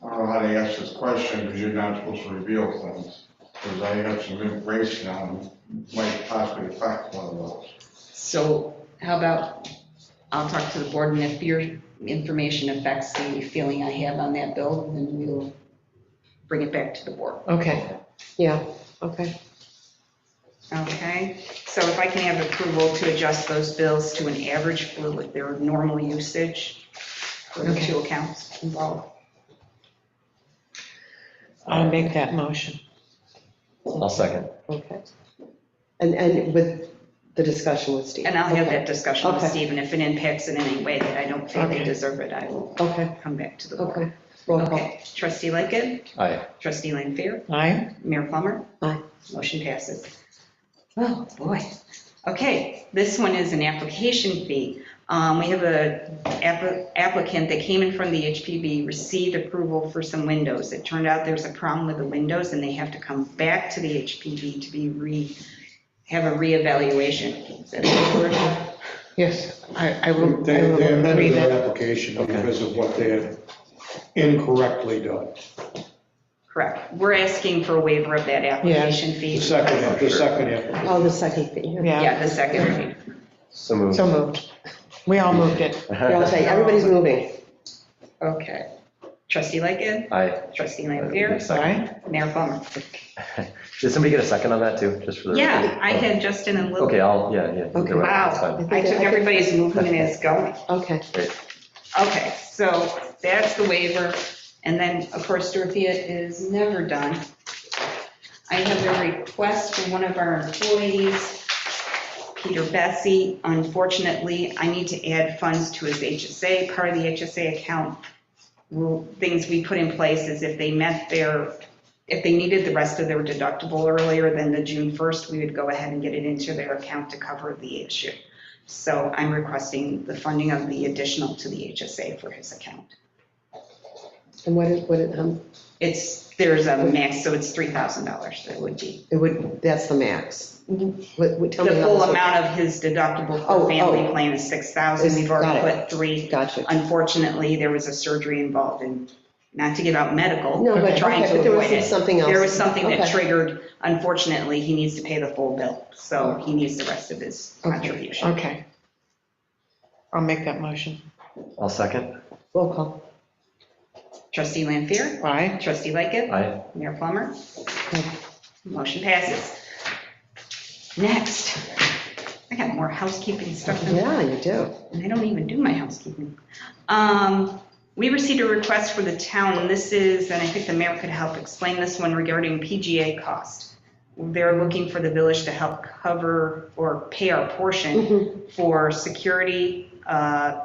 glad I asked this question, because you're not supposed to reveal things, because I have some information on might possibly affect one of those. So how about, I'll talk to the board, and if your information affects the feeling I have on that bill, then we'll bring it back to the board. Okay, yeah, okay. Okay, so if I can have approval to adjust those bills to an average for what their normal usage for the Okay. two accounts involved. I'll make that motion. I'll second. Okay. And, and with the discussion with Steve. And I'll have Okay, that discussion with Okay. Steve, and if it impacts in any way that I don't feel they Okay. deserve it, I will Okay, come back to the board. okay. Roll call. Okay, trustee Lightgev, Aye. trustee Lanfair, Aye. Mayor Plummer. Aye. Motion passes. Oh, boy. Okay, this one is an application fee. Um, We have a app- applicant that came in from the HPB, received approval for some windows. It turned out there's a problem with the windows, and they have to come back to the HPB to be re, have a reevaluation. Is that the word? Yes, I, I They will, I they will read amended their it. application Okay. because of what they had incorrectly done. Correct. We're asking for a waiver of that application The fee. second, the second application. Oh, the second thing. Yeah, the second fee. So moved. So moved. We all moved it. We all say, everybody's moving. Okay. Trustee Lightgev, Aye. trustee Lampier, Second. Mayor Plummer. Did somebody get a second on that too, just for the? Yeah, Oh. I had Justin and Lily. Okay, I'll, yeah, yeah. Okay. either way, that's Wow, fine. I took everybody's movement as going. Okay, Okay, so that's the waiver. And then, of course, Dorothea is never done. I have a request from one of our employees, Peter Bessie. Unfortunately, I need to add funds to his HSA. Part of the HSA account, rule- things we put in place is if they met their, if they needed the rest of their deductible earlier than the June 1st, we would go ahead and get it into their account to cover the issue. So I'm requesting the funding of the additional to the HSA for his account. and what it, what it, um, It's, there's a max, so it's $3,000 that would be. it would, that's the max. What, what, Mm-hmm. The tell me. how full this- amount of his deductible Oh, for family oh. plan is 6,000. We've already Got it. put three. Gotcha. Unfortunately, there was a surgery involved in, not to give out medical, No, but, but trying okay, to but there avoid was it. something else. There was something that Okay. triggered, unfortunately, he needs to pay the full bill. So he needs the rest of his contribution. Okay. I'll make that motion. I'll second. Roll call. Trustee Lampier, Aye. trustee Lightgev, Aye. Mayor Plummer? Motion passes. Next, I got more housekeeping stuff than Yeah, you do. and I don't even do my housekeeping. Um, We received a request for the town, this is, and I think the mayor could help explain this one regarding PGA cost. They're looking for the village to help cover or pay our Mm-hmm. portion for security, uh,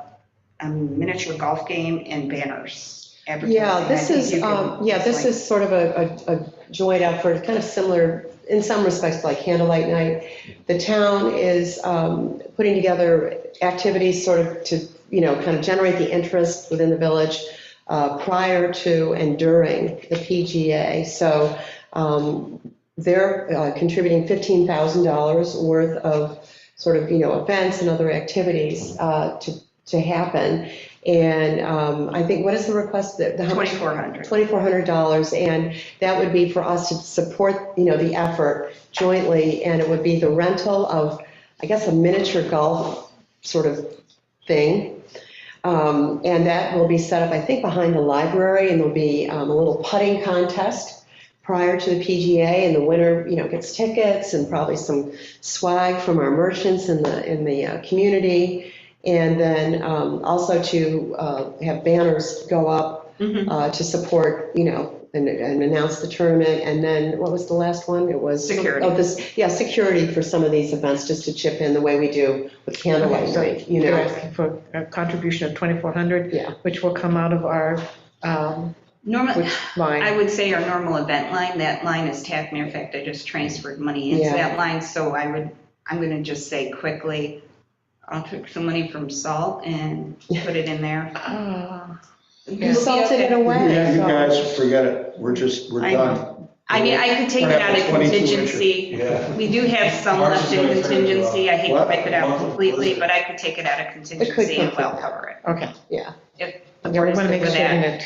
a miniature golf game and banners. advertising. Yeah, I this think is, you could um, yeah, this explain. is sort of a, a a joint effort, kind of similar, in some respects, like candlelight night. The town is um, putting together activities sort of to, you know, kind of generate the interest within the village uh, prior to and during the PGA. So um, they're uh, contributing $15,000 worth of sort of, you know, events and other activities uh, to, to happen. And um, I think, what is the request? that- the- how much- 2,400. $2,400, and that would be for us to support, you know, the effort jointly, and it would be the rental of, I guess, a miniature golf sort of thing. Um, And that will be set up, I think, behind the library, and there'll be um, a little putting contest prior to the PGA, and the winner, you know, gets tickets and probably some swag from our merchants in the, in the uh, community. And then um, also to uh, have banners go up Mhm. uh, to support, you know, and, and announce the tournament. And then, what was the last one? It was. Security. Oh, this, yeah, security for some of these events, just to chip in the way we do with candlelight Okay, so night, you They're know. asking for a contribution of 2,400. Yeah. Which will come out of our, um, Normally, which line? I would say our normal event line, that line is tapped, matter of fact, I just transferred money into Yeah. that line, so I would, I'm gonna just say quickly, I'll take some money from salt and put it in there. Ah, You salted it away. Yeah, you so- guys, forget it. We're just, we're I done. I mean, I could take We're it out of at 22 inches. contingency, Yeah. we do have some left in contingency, I hate to What? wipe it out completely, but I could take it out of contingency and come well from- cover it. Okay. Yeah. If the Yeah, we board is want to good make with sure that. that